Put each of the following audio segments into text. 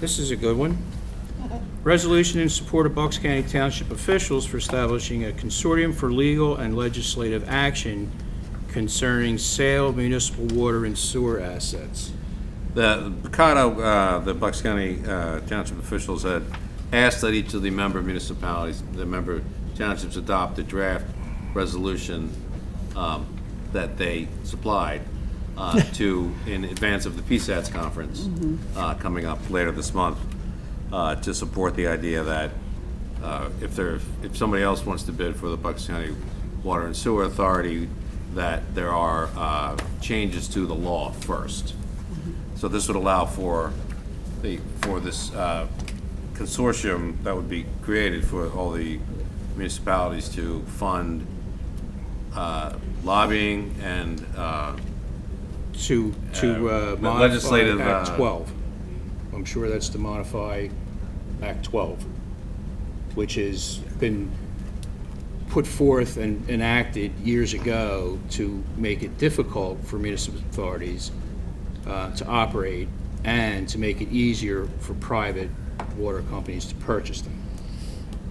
This is a good one. Resolution in support of Bucks County Township officials for establishing a consortium for legal and legislative action concerning sale of municipal water and sewer assets. The Picado, uh, the Bucks County uh, Township officials had asked that each of the member municipalities, the member townships adopt a draft resolution um, that they supplied uh, to, in advance of the PSATS conference uh, coming up later this month, uh, to support the idea that uh, if there, if somebody else wants to bid for the Bucks County Water and Sewer Authority, that there are uh, changes to the law first. So this would allow for the, for this uh, consortium that would be created for all the municipalities to fund uh, lobbying and uh, To, to uh, Uh, modify legislative, Act uh, 12. I'm sure that's to modify Act 12, which has been put forth and enacted years ago to make it difficult for municipal authorities uh, to operate and to make it easier for private water companies to purchase them.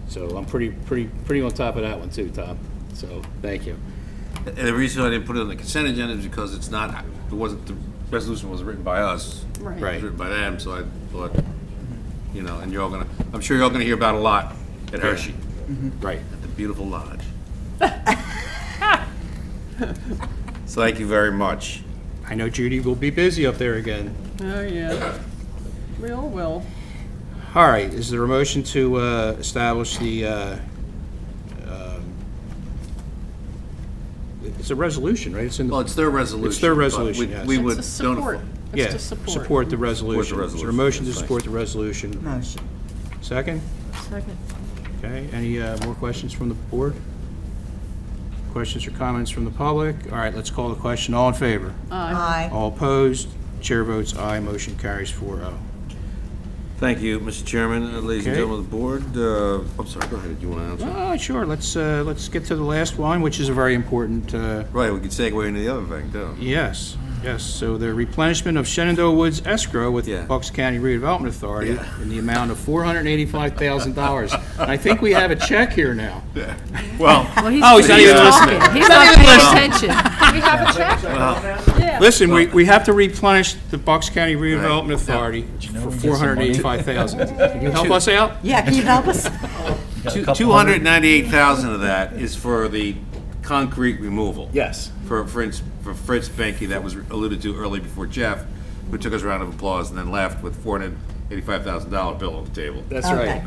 So I'm pretty, pretty, pretty on top of that one too, Tom. So, thank you. And the reason I didn't put it on the consent agenda is because it's not, it wasn't, the resolution wasn't written by us. Right. It Right. was written by them, so I thought, you know, and you're all gonna, I'm sure you're all gonna hear about it a lot at Hershey, Right. at the beautiful lodge. So thank you very much. I know Judy will be busy up there again. Oh, yeah. We all will. All right, is there a motion to uh, establish the, uh, um, it's a resolution, right? It's in, Well, the it's their resolution. their but we- resolution, yes. We It's would. It's a don't- support. yeah, It's to support. support the resolution. Is there a resolution, motion to yes, thanks. support the resolution? Motion. Second? Second. Okay, any uh, more questions from the board? Questions or comments from the public? All right, let's call the question. All in favor? Aye. All opposed? Chair votes aye, motion carries oh. 4-0. Thank you, Mr. Chairman, uh, ladies and Okay. gentlemen of the board. Uh, I'm sorry, go ahead, do you want to answer? Ah, Sure, let's, uh, let's get to the last one, which is a very important uh, Right, we could segue into the other thing, too. Yes, yes, so the replenishment of Shenandoah Woods escrow with Yeah. Bucks County Redevelopment Authority in the amount of $485,000. And I think we have a check here now. Well, Oh, he's not even listening. talking. He's not paying attention. Listen, we, we have to replenish the Bucks County Redevelopment Authority for $485,000. Can you help us out? Yeah, can you help us? Two- 298,000 of that is for the concrete removal. Yes. For Fritz, for Fritz Benke, that was alluded to early before Jeff, who took his round of applause and then left with $485,000 bill on the table. That's right.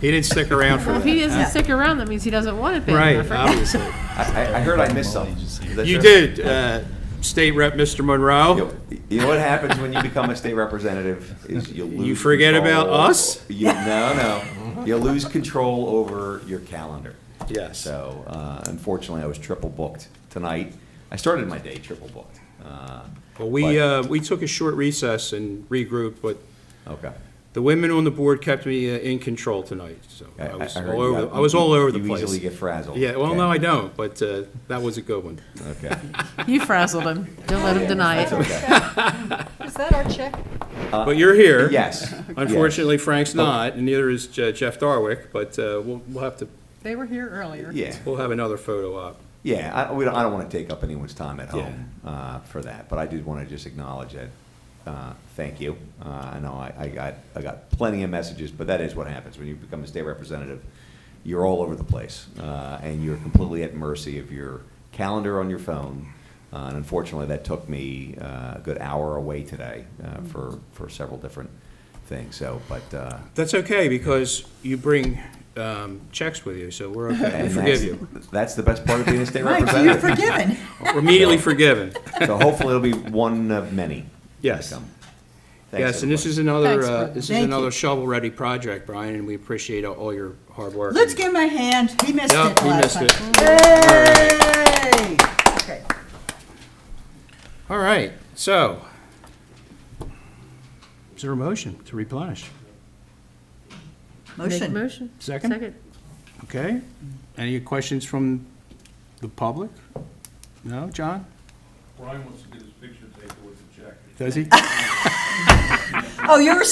He didn't stick around for If that. he doesn't stick around, that means he doesn't want it bad Right, enough, right? obviously. I, I heard I missed something. Is that You true? did, uh, State Rep Mr. Monroe. You- You know what happens when you become a state representative is you lose. You forget control- about us? You, no, no. You lose control over your calendar. Yes. So uh, unfortunately, I was triple booked tonight. I started my day triple booked. Uh, Well, we, but- uh, we took a short recess and regrouped, but Okay. The women on the board kept me uh, in control tonight, so I was heard all you over, got- I was all over the You place. easily get frazzled. Yeah, well, no, Okay. I don't, but uh, that was a good one. Okay. You frazzled him. Don't let him deny That's it. okay. Is that our check? Uh, But you're here. Yes. Unfortunately, Frank's Oh. not, and neither is Je- Jeff Darwick, but uh, we'll, we'll have to, They were here earlier. Yeah. we'll have another photo op. Yeah, I, we don't, I don't want to take up anyone's time at home uh, for that, but I did want to just acknowledge it. Uh, thank you. Uh, I know I, I got I got plenty of messages, but that is what happens when you become a state representative. You're all over the place, uh, and you're completely at mercy of your calendar on your phone. Uh, and unfortunately, that took me uh, a good hour away today uh, Mm. for for several different things. So, but uh, That's okay, because you bring um, checks with you, so we're okay. We and forgive that's, you. That's the best part of being a state Right, so you're representative. forgiven. We're immediately forgiven. So hopefully it'll be one of many. Yes. to come. Thanks, Yes, and this everybody. is another, Thanks, uh, Bert. this is Thank you. another shovel-ready project, Brian, and we appreciate all- all your hard work. Let's give him a hand. He missed Yeah, it he last missed time. Yay! Okay. All right, so, is there a motion to replenish? Make a Motion. motion. Second? Okay, any questions from the public? No, John? Brian wants to get his picture taken with the jacket. Does he? Oh, you're